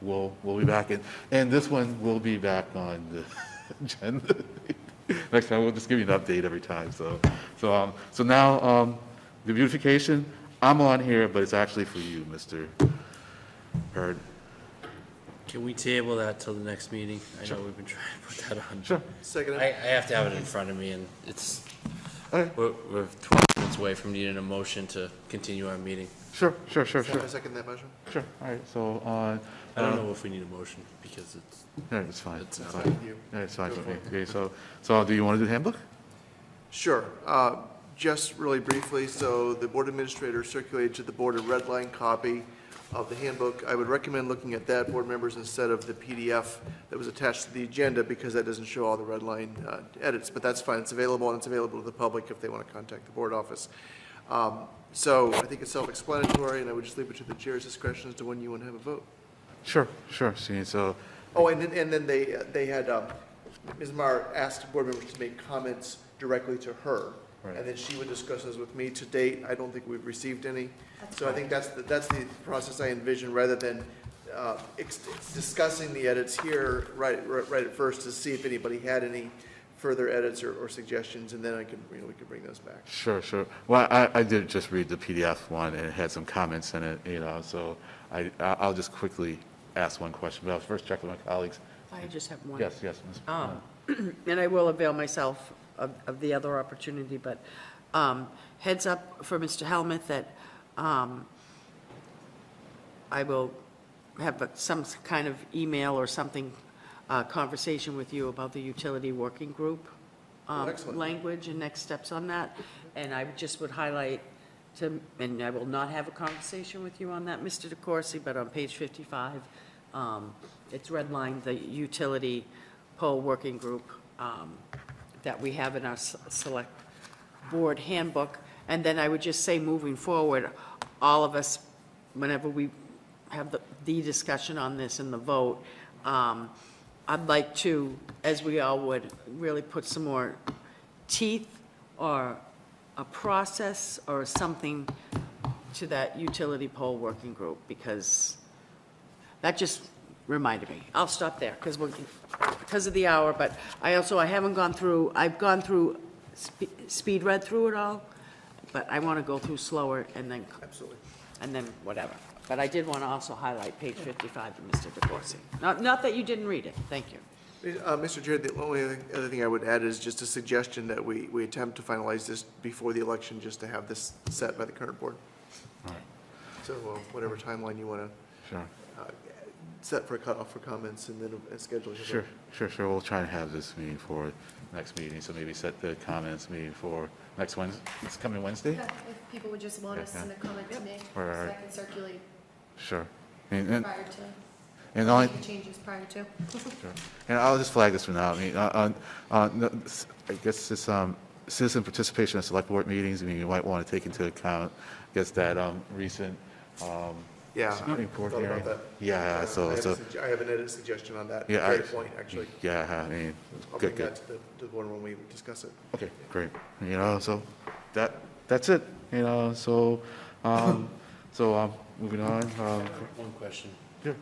we'll, we'll be back in. And this one will be back on the agenda. Next time, we'll just give you an update every time, so. So, um, so now, um, the beautification, I'm on here, but it's actually for you, Mr. Heard. Can we table that till the next meeting? I know we've been trying to put that on. Sure. I, I have to have it in front of me and it's, Okay. we're, we're twelve minutes away from needing a motion to continue our meeting. Sure, sure, sure, sure, I second that motion. sure. All right, so, uh, I don't know if we need a motion because it's, no, it's fine. It's It's fine. No, It's fine, for me. okay, so, so do you want to do the handbook? Sure. Uh, Just really briefly, so the board administrator circulated to the board a red line copy of the handbook. I would recommend looking at that, board members, instead of the PDF that was attached to the agenda, because that doesn't show all the red line uh, edits, but that's fine. It's available, and it's available to the public if they want to contact the board office. Um, So I think it's self-explanatory, and I would just leave it to the chair's discretion as to when you want to have a vote. Sure, sure, see, so, Oh, and then, and then they, they had, um, Ms. Meyer asked board members to make comments directly to her. Right. And then she would discuss those with me. To date, I don't think we've received any. So I think that's, the- that's the process I envision, rather than, uh, ex- discussing the edits here right, right right at first to see if anybody had any further edits or, or suggestions, and then I could, you know, we could bring those back. sure, sure. Well, I, I did just read the PDF one, and it had some comments in it, you know, so I, I- I'll just quickly ask one question, but I'll first check with my colleagues. I just have one. Yes, yes, Ms. Um, And I will avail myself of, of the other opportunity, but um, heads up for Mr. Helmuth that um, I will have a- some kind of email or something, uh, conversation with you about the utility working group um, excellent. language and next steps on that. And I just would highlight to, and I will not have a conversation with you on that, Mr. DeCoursey, but on page 55, um, it's redlined, the utility poll working group um, that we have in our s- select board handbook. And then I would just say, moving forward, all of us, whenever we have the, the discussion on this and the vote, um, I'd like to, as we all would, really put some more teeth or a process or something to that utility pole working group, because that just reminded me. I'll stop there, because we're, because of the hour, but I also, I haven't gone through, I've gone through, spe- speed read through it all, but I want to go through slower and then. Absolutely. And then whatever. But I did want to also highlight page 55 of Mr. DeCoursey. Not, not that you didn't read it, thank you. Uh, Mr. Chair, the only other- other thing I would add is just a suggestion that we, we attempt to finalize this before the election, just to have this set by the current board. All right, So uh, whatever timeline you want sure. to set for a cutoff for comments and then uh, schedule. your Sure, vote. sure, sure. We'll try and have this meeting for next meeting, so maybe set the comments meeting for next Wednesday, It's coming Wednesday? Yeah, if people would just want to send a comment to me, so Right, right, I right. can circulate Sure. And, and, prior to, and the only, any changes prior to. sure. and I'll just flag this for now. I mean, uh, on, on, the- s- I guess this, um, citizen participation in select board meetings, I mean, you might want to take into account, I guess that, um, recent, um, Yeah. I Supreme Court thought about hearing. that. Yeah, Uh, I so, have a so, sug- I have an edit suggestion on that. yeah. I- Great point, actually. Yeah, I mean, I'll good, bring good. that to the, to the board when we discuss it. Okay, great. You know, so that, that's it, you know, so, um, so, um, moving on, um, one question. Sure.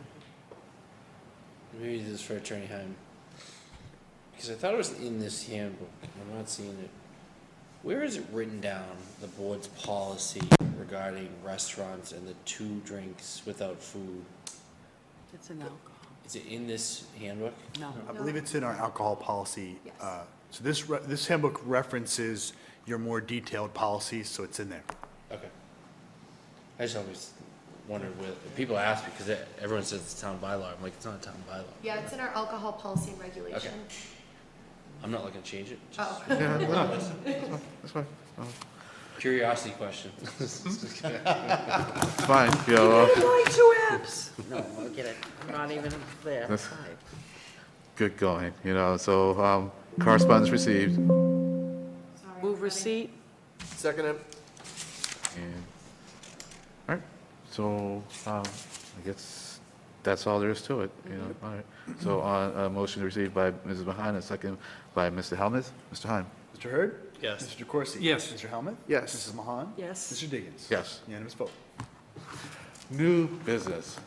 Maybe this is for Attorney Heim. Because I thought it was in this handbook, and I'm not seeing it. Where is it written down, the board's policy regarding restaurants and the two drinks without food? It's an alcohol, Is it in this handbook? no. I believe it's in our alcohol policy. Yes. uh, So this, re- this handbook references your more detailed policies, so it's in there. Okay. I just always wondered where, people ask because e- everyone says it's town bylaw. I'm like, it's not a town bylaw. Yeah, it's in our alcohol policy and regulation. I'm not looking to change it. just Oh, yeah, no, that's fine, Curiosity question. it's fine, you know, uh, two apps. No, forget it, I'm not even there. That's- Five. good going, you know, so, um, correspondence received, sorry, Move everybody. receipt, Second, it. and, all right, so, um, I guess that's all there is to it, you know, all right. So, uh, a motion received by Mrs. Mahan, a second by Mr. Helmuth, Mr. Heim, Mr. Hurd? Yes. Mr. DeCoursey? Yes. Mr. Helmuth? Yes. Mrs. Mahan? Yes. Mr. Diggins? yes. Unanimous vote. New business,